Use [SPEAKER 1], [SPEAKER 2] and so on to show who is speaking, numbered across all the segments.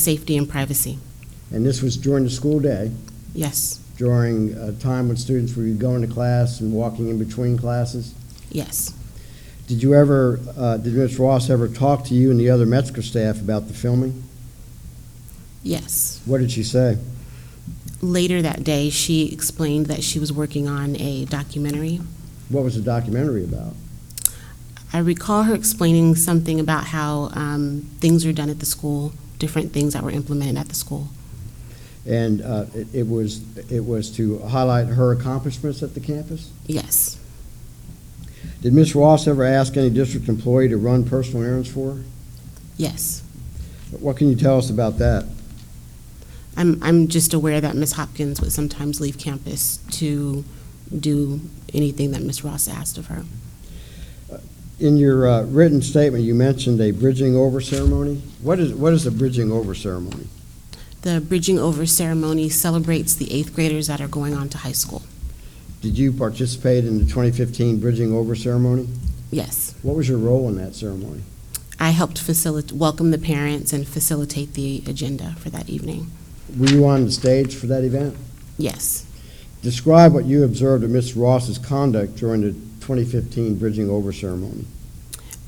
[SPEAKER 1] safety and privacy.
[SPEAKER 2] And this was during the school day,
[SPEAKER 1] Yes,
[SPEAKER 2] during a time when students were going to class and walking in between classes?
[SPEAKER 1] yes.
[SPEAKER 2] Did you ever, uh, did Ms. Ross ever talk to you and the other Metzger staff about the filming?
[SPEAKER 1] Yes.
[SPEAKER 2] What did she say?
[SPEAKER 1] Later that day, she explained that she was working on a documentary.
[SPEAKER 2] What was the documentary about?
[SPEAKER 1] I recall her explaining something about how um, things are done at the school, different things that were implemented at the school.
[SPEAKER 2] And uh, it- it was, it was to highlight her accomplishments at the campus?
[SPEAKER 1] Yes,
[SPEAKER 2] Did Ms. Ross ever ask any district employee to run personal errands for her?
[SPEAKER 1] yes.
[SPEAKER 2] What can you tell us about that?
[SPEAKER 1] I'm, I'm just aware that Ms. Hopkins would sometimes leave campus to do anything that Ms. Ross asked of her.
[SPEAKER 2] In your uh, written statement, you mentioned a bridging over ceremony. What is, what is a bridging over ceremony?
[SPEAKER 1] The Bridging Over ceremony celebrates the eighth graders that are going on to high school.
[SPEAKER 2] Did you participate in the 2015 bridging over ceremony?
[SPEAKER 1] Yes.
[SPEAKER 2] What was your role in that ceremony?
[SPEAKER 1] I helped facilitate, welcome the parents and facilitate the agenda for that evening.
[SPEAKER 2] Were you on the stage for that event?
[SPEAKER 1] Yes.
[SPEAKER 2] Describe what you observed of Ms. Ross's conduct during the 2015 bridging over ceremony.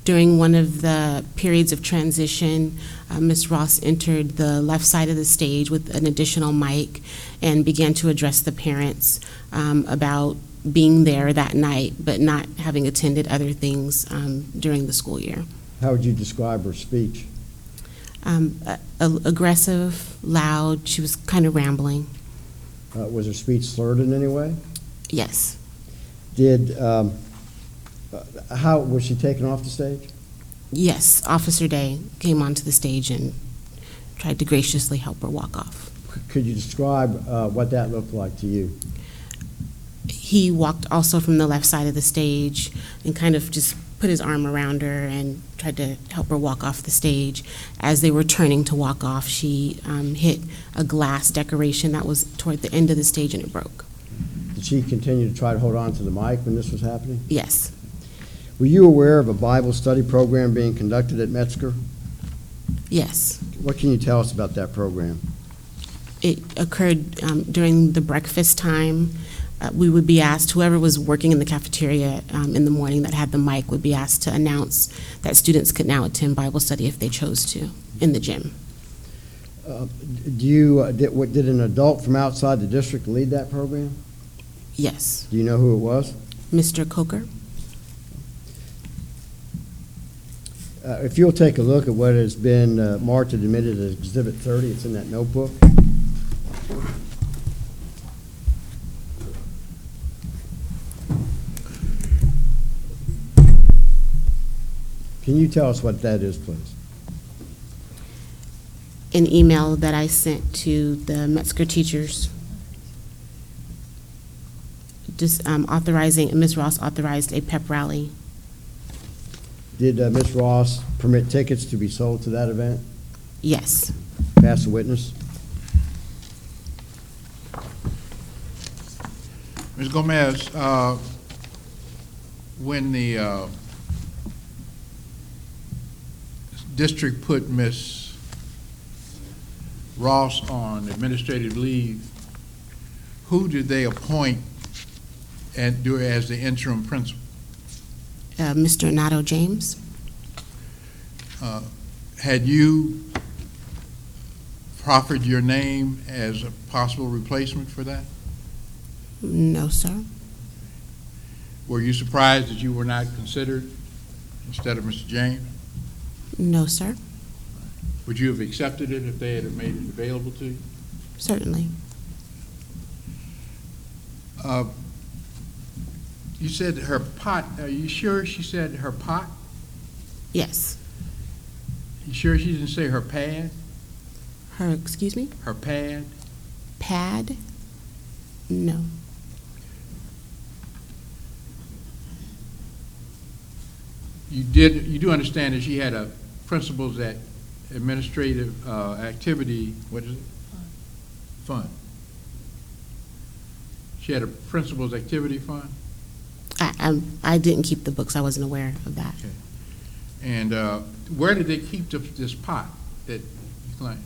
[SPEAKER 1] During one of the periods of transition, uh, Ms. Ross entered the left side of the stage with an additional mic and began to address the parents um, about being there that night but not having attended other things um, during the school year.
[SPEAKER 2] How would you describe her speech?
[SPEAKER 1] Um, a- a- aggressive, loud, she was kind of rambling.
[SPEAKER 2] Uh, Was her speech slurred in any way?
[SPEAKER 1] Yes.
[SPEAKER 2] Did, um, uh, how, was she taken off the stage?
[SPEAKER 1] Yes, Officer Day came onto the stage and tried to graciously help her walk off.
[SPEAKER 2] Could you describe uh, what that looked like to you?
[SPEAKER 1] He walked also from the left side of the stage and kind of just put his arm around her and tried to help her walk off the stage. As they were turning to walk off, she um, hit a glass decoration that was toward the end of the stage and it broke.
[SPEAKER 2] Did she continue to try to hold on to the mic when this was happening?
[SPEAKER 1] Yes,
[SPEAKER 2] Were you aware of a Bible study program being conducted at Metzger?
[SPEAKER 1] yes.
[SPEAKER 2] What can you tell us about that program?
[SPEAKER 1] It occurred um, during the breakfast time. Uh, we would be asked, whoever was working in the cafeteria um, in the morning that had the mic would be asked to announce that students could now attend Bible study if they chose to in the gym.
[SPEAKER 2] Uh, Do you, uh, did what- did an adult from outside the district lead that program?
[SPEAKER 1] Yes.
[SPEAKER 2] Do you know who it was?
[SPEAKER 1] Mr. Coker?
[SPEAKER 2] Uh, If you'll take a look at what has been uh, marked and admitted as Exhibit 30, it's in that notebook. Can you tell us what that is, please?
[SPEAKER 1] An email that I sent to the Metzger teachers just um, authorizing, Ms. Ross authorized a pep rally.
[SPEAKER 2] Did uh, Ms. Ross permit tickets to be sold to that event?
[SPEAKER 1] Yes.
[SPEAKER 2] Pass the witness.
[SPEAKER 3] Ms. Gomez, uh, when the uh, district put Ms. Ross on administrative leave, who did they appoint and do as the interim principal?
[SPEAKER 1] Uh, Mr. Nato James?
[SPEAKER 3] Uh, Had you proffered your name as a possible replacement for that?
[SPEAKER 1] No, sir.
[SPEAKER 3] Were you surprised that you were not considered instead of Mr. James?
[SPEAKER 1] No, sir.
[SPEAKER 3] Would you have accepted it if they had made it available to you?
[SPEAKER 1] Certainly.
[SPEAKER 3] Uh, You said her pot, are you sure she said her pot?
[SPEAKER 1] Yes.
[SPEAKER 3] You sure she didn't say her pad,
[SPEAKER 1] Her, excuse me?
[SPEAKER 3] her pad?
[SPEAKER 1] Pad? No.
[SPEAKER 3] You did, you do understand that she had a principals at administrative uh, activity, what is it? Fund. She had a principals activity fund?
[SPEAKER 1] I, I'm- I didn't keep the books. I wasn't aware of that.
[SPEAKER 3] And uh, where did they keep the- this pot that you claim?